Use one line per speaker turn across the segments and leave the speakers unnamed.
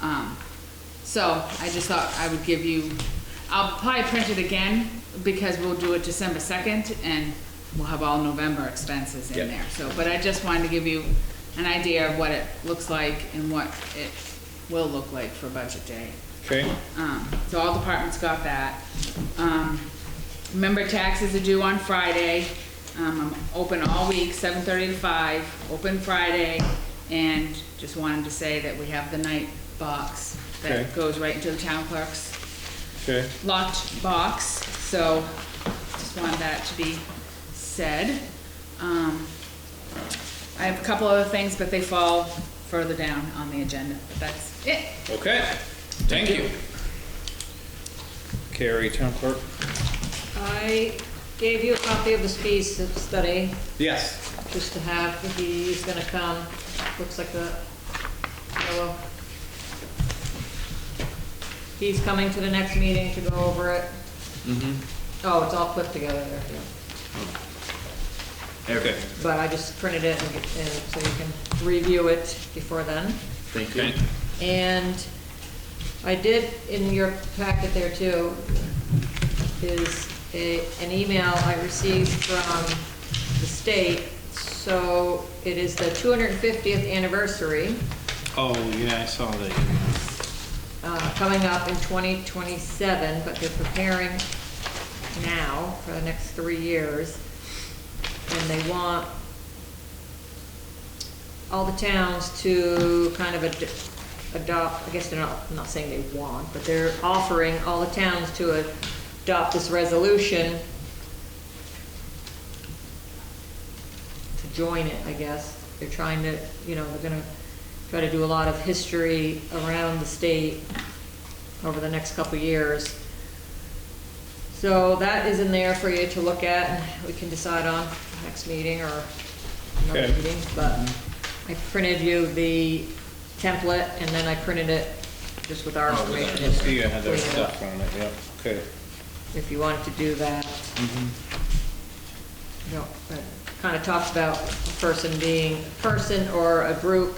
Um, So I just thought I would give you, I'll probably print it again because we'll do it December second and we'll have all November expenses in
Yep.
there. So, but I just wanted to give you an idea of what it looks like and what it will look like for budget day.
Okay,
Um, so all departments got that. Um, remember taxes are due on Friday. Um, I'm open all week, seven thirty to five, open Friday. And just wanted to say that we have the night box
Okay.
that goes right into the town clerk's
okay.
locked box, so just wanted that to be said. Um, I have a couple other things, but they fall further down on the agenda, but that's it.
Okay, thank you. Carrie, town clerk?
I gave you a copy of the speed study,
Yes.
just to have, if he's gonna come, looks like the yellow. He's coming to the next meeting to go over it. Oh, it's all clipped together there,
Okay,
but I just printed it and, get- and so you can review it before then.
Thank you.
okay,
And I did, in your packet there too, is a, an email I received from the state. So it is the 250th anniversary
Oh, yeah, I saw that.
uh, coming up in 2027, but they're preparing now for the next three years. And they want all the towns to kind of ad- adopt, I guess they're not, I'm not saying they want, but they're offering all the towns to adopt this resolution to join it, I guess. They're trying to, you know, they're gonna try to do a lot of history around the state over the next couple of years. So that is in there for you to look at, and we can decide on next meeting or another
Okay.
meeting, but I printed you the template, and then I printed it just with our
Oh,
information.
I
in
see you
there,
had that
clean it up
stuff on it, yeah, okay.
if you wanted to do that.
Mm-hmm.
You know, kind of talks about a person being, a person or a group,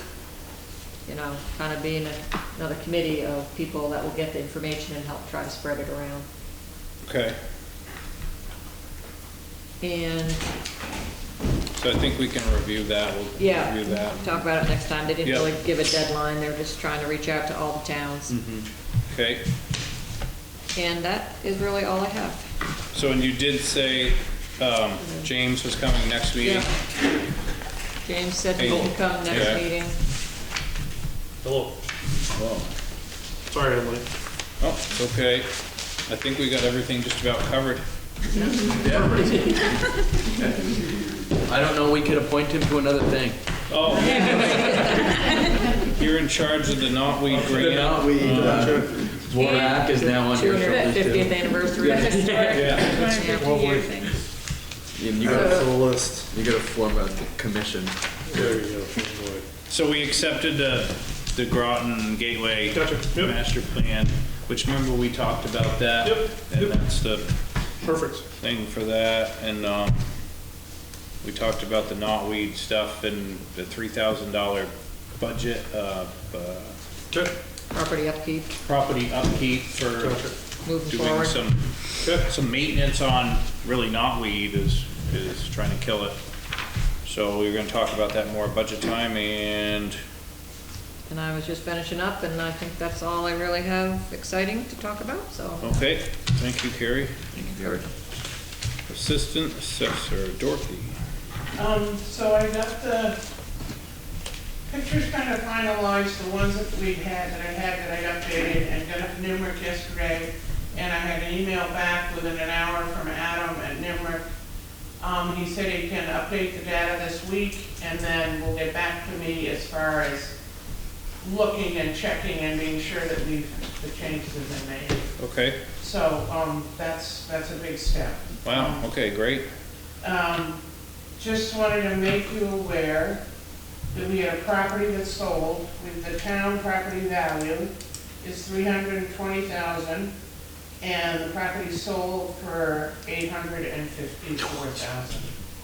you know, kind of being a- another committee of people that will get the information and help try to spread it around.
Okay,
And,
so I think we can review that, we'll
yeah,
review that.
talk about it next time. They didn't
Yeah.
really give a deadline, they're just trying to reach out to all the towns.
Mm-hmm. Okay,
And that is really all I have.
so and you did say, um, James was coming next meeting?
Yeah. James said he
Hey.
can come
Yeah.
next meeting.
Hello. Sorry I'm late.
Oh, it's okay, I think we got everything just about covered.
I don't know, we could appoint him to another thing.
Oh. You're in charge of the knotweed
The
grant?
amount we, uh, Borak is now on your shoulders too.
250th anniversary.
Yeah,
Year thing.
And you
I got
gotta,
a full list.
you gotta form a commission.
There you go. Good boy.
so we accepted the, the Groton Gateway
Gotcha. Yep.
master plan, which remember we talked about that?
Yep.
And
Yep.
that's the
Perfect.
thing for that, and, um, we talked about the knotweed stuff and the three thousand dollar budget, uh, uh,
Okay.
Property upkeep,
property upkeep for
Gotcha.
moving
doing
forward.
some, some maintenance on really knotweed is, is trying to kill it. So we we're gonna talk about that more budget time and,
And I was just finishing up, and I think that's all I really have exciting to talk about, so.
okay, thank you, Carrie.
Thank you, Derek.
Assistant Assessor Dorothy.
Um, so I got the pictures kind of finalized, the ones that we had, that I had, that I updated, and got it from Nimrick yesterday. And I had an email back within an hour from Adam at Nimrick. Um, he said he can update the data this week, and then will get back to me as far as looking and checking and being sure that we've, the changes have been made.
Okay,
So, um, that's, that's a big step.
wow, okay, great.
Um, just wanted to make you aware that we had a property that sold with the town property value is three hundred and twenty thousand and the property sold for eight hundred and fifty-four thousand.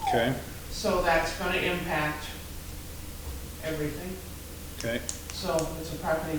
Okay,
So that's gonna impact everything.
okay,
So it's a property